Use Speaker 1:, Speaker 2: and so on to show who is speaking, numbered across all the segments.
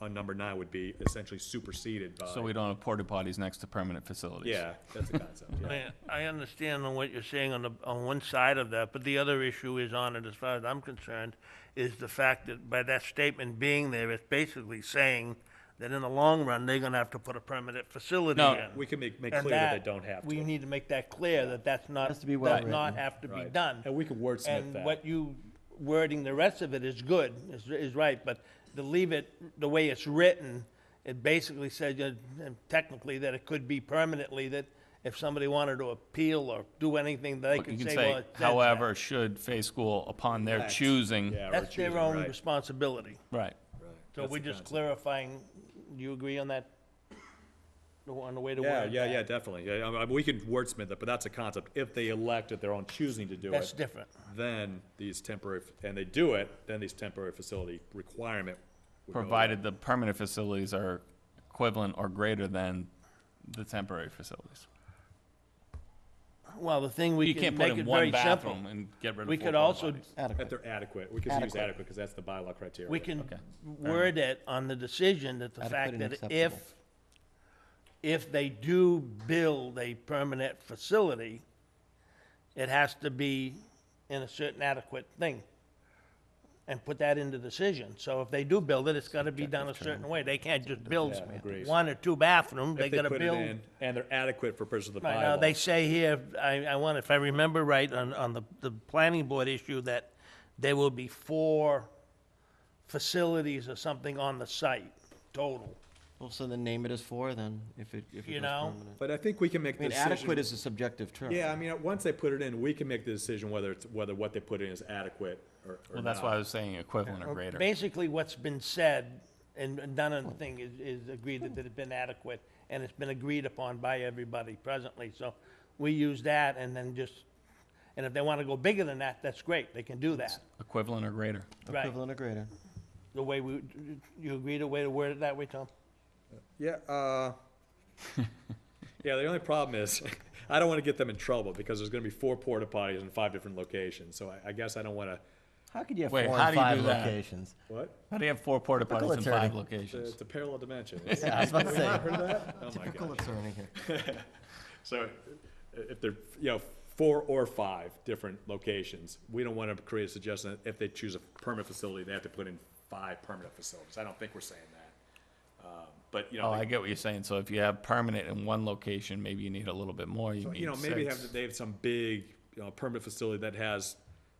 Speaker 1: on number nine would be essentially superseded by.
Speaker 2: So we don't have porta potties next to permanent facilities.
Speaker 1: Yeah, that's the concept, yeah.
Speaker 3: I, I understand on what you're saying on the, on one side of that, but the other issue is on it, as far as I'm concerned, is the fact that by that statement being there, it's basically saying that in the long run, they're gonna have to put a permanent facility
Speaker 2: No.
Speaker 3: in.
Speaker 1: We can make, make
Speaker 3: And
Speaker 1: clear that they don't have
Speaker 3: We
Speaker 1: to.
Speaker 3: need to make that clear, that that's not,
Speaker 4: Has to be
Speaker 3: does
Speaker 4: well-written.
Speaker 3: not have to be
Speaker 1: Right.
Speaker 3: done.
Speaker 1: And we can wordsmith that.
Speaker 3: And what you wording, the rest of it is good, is, is right, but to leave it the way it's written, it basically said uh, technically that it could be permanently, that if somebody wanted to appeal or do anything, they
Speaker 2: But you
Speaker 3: could
Speaker 2: can
Speaker 3: say, well,
Speaker 2: say,
Speaker 3: it says that."
Speaker 2: however, should Fay School upon their choosing.
Speaker 1: Yeah, or
Speaker 3: That's
Speaker 1: choosing,
Speaker 3: their own
Speaker 1: right,
Speaker 3: responsibility.
Speaker 2: Right.
Speaker 1: right.
Speaker 3: So
Speaker 1: That's
Speaker 3: we're
Speaker 1: the
Speaker 3: just
Speaker 1: concept.
Speaker 3: clarifying, do you agree on that? The- On the way to
Speaker 1: Yeah,
Speaker 3: word?
Speaker 1: yeah,
Speaker 3: that?
Speaker 1: yeah, definitely. Yeah, I mean, we can wordsmith it, but that's a concept. If they elect at their own choosing to do it.
Speaker 3: That's different.
Speaker 1: Then these temporary, and they do it, then these temporary facility requirement. would go away.
Speaker 2: Provided the permanent facilities are equivalent or greater than the temporary facilities.
Speaker 3: Well, the thing we
Speaker 2: You
Speaker 3: can
Speaker 2: can't put
Speaker 3: make
Speaker 2: in
Speaker 3: it
Speaker 2: one
Speaker 3: very simple.
Speaker 2: bathroom and get rid of four
Speaker 3: We could
Speaker 2: porta
Speaker 3: also
Speaker 2: potties.
Speaker 1: That
Speaker 4: Adequate.
Speaker 1: they're adequate. We could use
Speaker 4: Adequate.
Speaker 1: adequate because that's the bylaw criteria.
Speaker 3: We can
Speaker 2: Okay.
Speaker 3: word it on the decision that the
Speaker 4: Adequate
Speaker 3: fact
Speaker 4: and
Speaker 3: that
Speaker 4: acceptable.
Speaker 3: if, if they do build a permanent facility, it has to be in a certain adequate thing. And put that into decision. So if they do build it, it's gotta be done a certain way. They can't just build
Speaker 1: Yeah, agrees.
Speaker 3: one or two bathrooms. They
Speaker 1: If they
Speaker 3: gotta
Speaker 1: put it
Speaker 3: build.
Speaker 1: in, and they're adequate for purposes of the
Speaker 3: Right, now,
Speaker 1: bylaw.
Speaker 3: they say here, I, I want, if I remember right, on, on the, the planning board issue, that there will be four facilities or something on the site, total,
Speaker 4: Well, so then name it as four then, if it, if it
Speaker 3: you
Speaker 4: goes
Speaker 3: know?
Speaker 4: permanent.
Speaker 1: But I think we can make
Speaker 4: I
Speaker 1: the
Speaker 4: mean,
Speaker 1: decision.
Speaker 4: adequate is a subjective term.
Speaker 1: Yeah, I mean, uh, once they put it in, we can make the decision whether it's, whether what they put in is adequate or, or
Speaker 2: Well, that's
Speaker 1: not.
Speaker 2: why I was saying equivalent or greater.
Speaker 3: Basically, what's been said and and done on the thing is, is agreed that it's been adequate, and it's been agreed upon by everybody presently, so we use that and then just, and if they wanna go bigger than that, that's great, they can do that,
Speaker 2: Equivalent or greater.
Speaker 3: right?
Speaker 4: Equivalent or greater.
Speaker 3: The way we, you agree the way to word it that way, Tom?
Speaker 1: Yeah, uh. Yeah, the only problem is, I don't wanna get them in trouble because there's gonna be four porta potties in five different locations, so I, I guess I don't wanna,
Speaker 5: How could you have
Speaker 2: Wait,
Speaker 5: four
Speaker 2: how
Speaker 5: and
Speaker 2: do you
Speaker 5: five
Speaker 2: do that?
Speaker 5: locations?
Speaker 1: what?
Speaker 2: How do you have four porta
Speaker 5: Typical
Speaker 2: potties in
Speaker 5: attorney.
Speaker 2: five
Speaker 1: It's a-
Speaker 2: locations?
Speaker 1: it's a parallel dimension.
Speaker 5: Yeah, I was about to say.
Speaker 1: Heard of that? Oh my
Speaker 5: Typical
Speaker 1: God.
Speaker 5: attorney here.
Speaker 1: So i- if they're, you know, four or five different locations, we don't want to create a suggestion that if they choose a permanent facility, they have to put in five permanent facilities. I don't think we're saying that. Um, But, you
Speaker 2: Oh,
Speaker 1: know,
Speaker 2: I
Speaker 1: they-
Speaker 2: get what you're saying. So if you have permanent in one location, maybe you need a little bit more. You
Speaker 1: you know,
Speaker 2: need
Speaker 1: maybe they
Speaker 2: six.
Speaker 1: have, they have some big, you know, permanent facility that has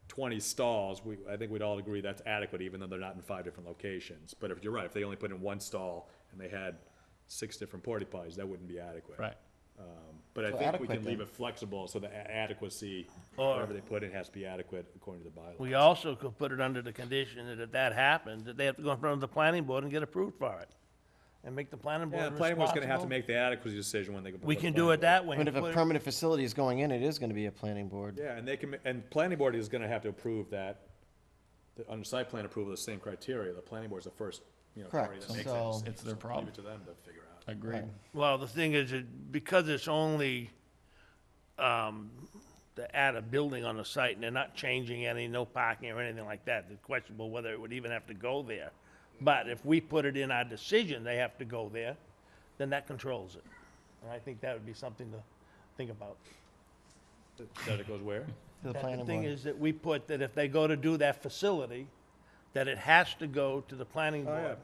Speaker 1: twenty stalls. We, I think we'd all agree that's adequate, even though they're not in five different locations. But if, you're right, if they only put in one stall and they had six different porta potties, that wouldn't be adequate.
Speaker 2: Right.
Speaker 1: But I
Speaker 5: So
Speaker 1: think we
Speaker 5: adequate
Speaker 1: can leave
Speaker 5: then.
Speaker 1: it flexible, so the a- adequacy,
Speaker 3: Or-
Speaker 1: whatever they put in has to be adequate according to the bylaw.
Speaker 3: We also could put it under the condition that if that happens, that they have to go in front of the planning board and get approved for it. And make the planning board
Speaker 1: Yeah, the
Speaker 3: responsible.
Speaker 1: planning board's gonna have to make the adequacy decision when they go. before
Speaker 3: We
Speaker 1: the
Speaker 3: can do
Speaker 1: planning
Speaker 3: it that
Speaker 4: I
Speaker 3: way.
Speaker 4: mean, if
Speaker 3: and
Speaker 4: a
Speaker 3: put it-
Speaker 4: permanent facility is going in, it is gonna be a planning
Speaker 1: board.
Speaker 4: board.
Speaker 1: Yeah, and they can, ma- and planning board is gonna have to approve that, the, under site plan approval, the same criteria, the planning board's the first, you know, party
Speaker 4: Correct,
Speaker 1: that makes it.
Speaker 4: so-
Speaker 1: So
Speaker 2: It's their
Speaker 1: Leave
Speaker 2: problem.
Speaker 1: it to them to figure out.
Speaker 2: Agreed.
Speaker 3: Well, the thing is, that because it's only, um, to add a building on the site, and they're not changing any, no parking or anything like that, it's questionable whether it would even have to go there. But if we put it in our decision, they have to go there, then that controls it. And I think that would be something to think about.
Speaker 1: That it goes where?
Speaker 4: To the
Speaker 3: that
Speaker 4: planning
Speaker 3: The thing
Speaker 4: board.
Speaker 3: is that we put that if they go to do that facility, that it has to go to the planning
Speaker 1: Oh, yeah.
Speaker 3: board.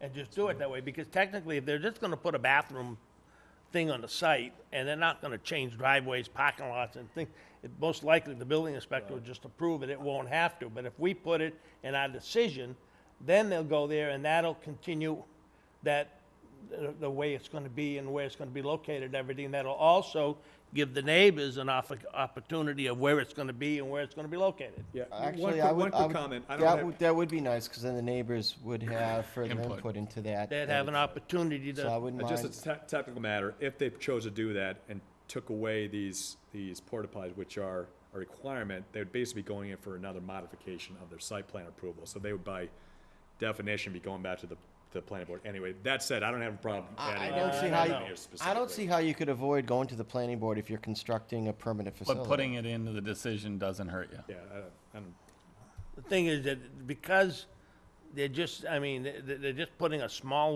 Speaker 3: And just do it that way, because technically, if they're just gonna put a bathroom thing on the site, and they're not gonna change driveways, parking lots, and things, it, most likely, the building inspector will just approve it, it won't have to, but if we put it in our decision, then they'll go there, and that'll continue that, the, the way it's gonna be and where it's gonna be located and everything, that'll also give the neighbors an off, opportunity of where it's gonna be and where it's gonna be located.
Speaker 1: Yeah. one
Speaker 4: Actually,
Speaker 1: quick-
Speaker 4: I would,
Speaker 1: One
Speaker 4: I
Speaker 1: quick
Speaker 4: would,
Speaker 1: comment, I
Speaker 4: that
Speaker 1: don't
Speaker 4: would,
Speaker 1: have,
Speaker 4: that would be nice, cause then the neighbors would have further
Speaker 2: Input.
Speaker 4: input into that.
Speaker 3: They'd
Speaker 4: that
Speaker 3: have an
Speaker 4: it's-
Speaker 3: opportunity to.
Speaker 4: So I wouldn't
Speaker 1: uh,
Speaker 4: mind.
Speaker 1: just a te- technical matter, if they chose to do that and took away these, these porta potties, which are a requirement, they would basically be going in for another modification of their site plan approval, so they would by definition be going back to the, the planning board. Anyway, that said, I don't have a problem
Speaker 4: I, I
Speaker 1: adding.
Speaker 4: don't see
Speaker 1: adding
Speaker 4: how,
Speaker 1: it
Speaker 4: you,
Speaker 1: here
Speaker 4: I don't
Speaker 1: specifically.
Speaker 4: see how you could avoid going to the planning board if you're constructing a permanent facility.
Speaker 2: But putting it into the decision doesn't hurt you.
Speaker 1: Yeah, I don't, I don't,
Speaker 3: The thing is that because they're just, I mean, they- they're just putting a small